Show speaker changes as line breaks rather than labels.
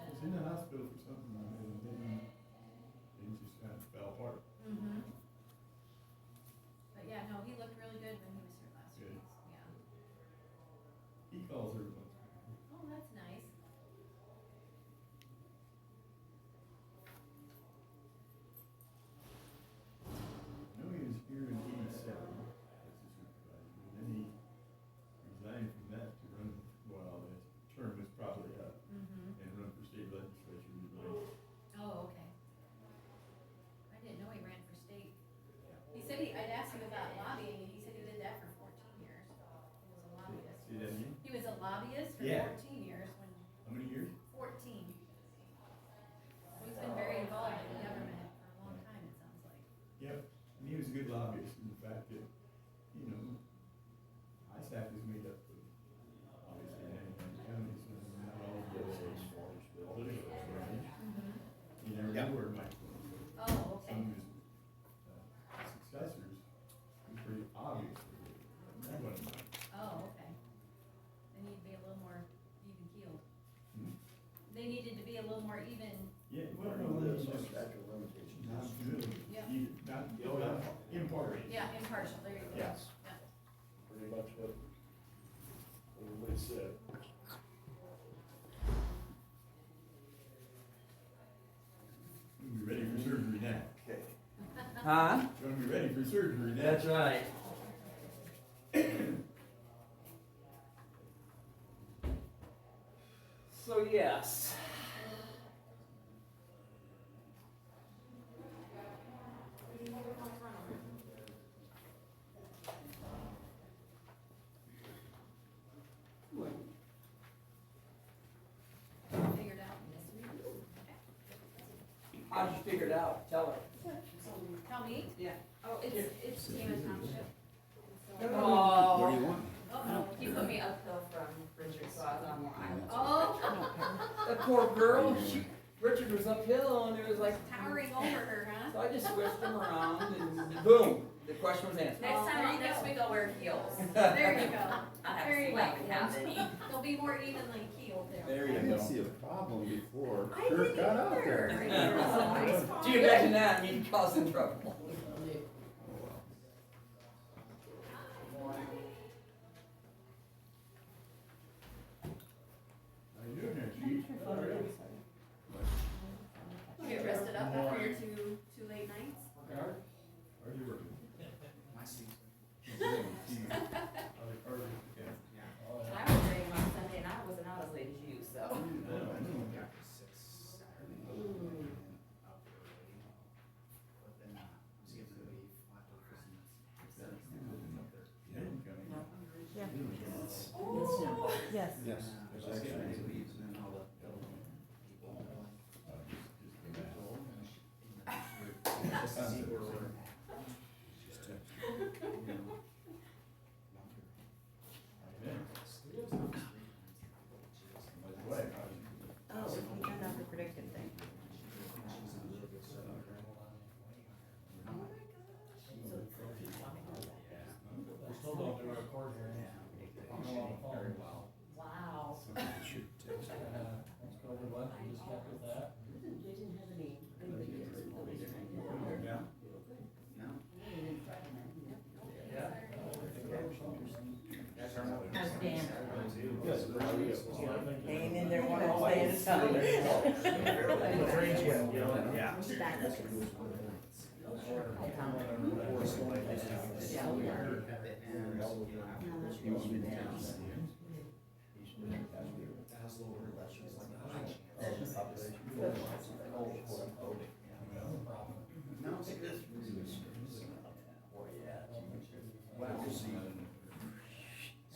Mm-hmm.
He calls her. once.
Oh, that's nice.
I know he was here in eighty-seven as a supervisor, and then he resigned from that to run, well, his term was probably up,
Mm-hmm.
and run for state legislature, he ran.
Oh, okay. I didn't know he ran for state. He said he, I'd asked him about lobbying, and he said he did that for fourteen years. He was a lobbyist.
See that name?
He was a lobbyist for
Yeah.
fourteen years, when,
How many years?
fourteen. He's been very involved in government for a long time, it sounds like.
Yep, and he was a good lobbyist in the fact that, you know, ISAC is made up of, obviously, nine counties, and not all of those are political, right? You never
Yeah.
know where it might go.
Oh, okay.
Some of his uh, successors were pretty obvious. That one,
Oh, okay. They need to be a little more even keeled.
Hmm?
They needed to be a little more even,
yeah, well,
Well,
no,
no,
that's
there's no
just
statute of limitations.
not good,
Yeah.
either, not,
Oh, yeah.
not impartial.
yeah, impartial, there you go.
Yes.
Yeah.
Pretty much what everybody said.
You'll be ready for surgery now.
Okay.
Huh?
You'll be ready for surgery now.
That's right. So yes.
Figured out this week.
How'd you figure it out? Tell her.
Tell me?
Yeah.
Oh, it's, it's Kima Township.
Oh.
What do you want?
Oh, no.
He Um, put me uphill from Richard, so I was on Long Island.
Oh,
That poor girl, she, Richard was uphill and it was like,
towering over her, huh?
so I just switched him around and boom, the question was answered.
Next
There
time,
you
next
go.
week I'll wear heels.
There you go.
I'll have
Oh. There you
sweat
go.
cavity.
They'll be more evenly keeled there.
I
There you
didn't
go.
see a problem before
I
Kirk
didn't
got out there.
either.
Do you imagine that? He'd cause some trouble.
How you doing there, Chief?
You Get rested up after your two, two late nights?
How are you working?
My sleep.
How are- how are you? Yeah.
I was ready on Sunday and I wasn't out as late as you, so.
I know, I know.
Got up at six Saturday. and then Up early. But then, uh, I'm skipping a leaf, I have to go for some facilities now, I'm up there.
Yeah, you
Yeah.
coming? Yeah.
Yes.
Yes,
Uh, I
there's
was skipping
actually-
these leaves and then all the people were like,
Uh, just- just came out.
"Oh, I'm gonna sh- in the- Just to see where we're at.
Just text.
You know, longer.
Amen. By the way, how you doing?
Oh, he turned off the prediction thing. Oh my gosh. So it's like he's talking about that.
We're still going through our court hearing.
Very well.
Wow.
Somebody should text
Uh,
her.
Let's go over what, we just kept with that.
No?
Yeah.
Yeah.
That's our mother.
How's Dan?
Yes, there she is.
Ain't in there one of them saying
Yeah.
something.
Yeah.
You want me to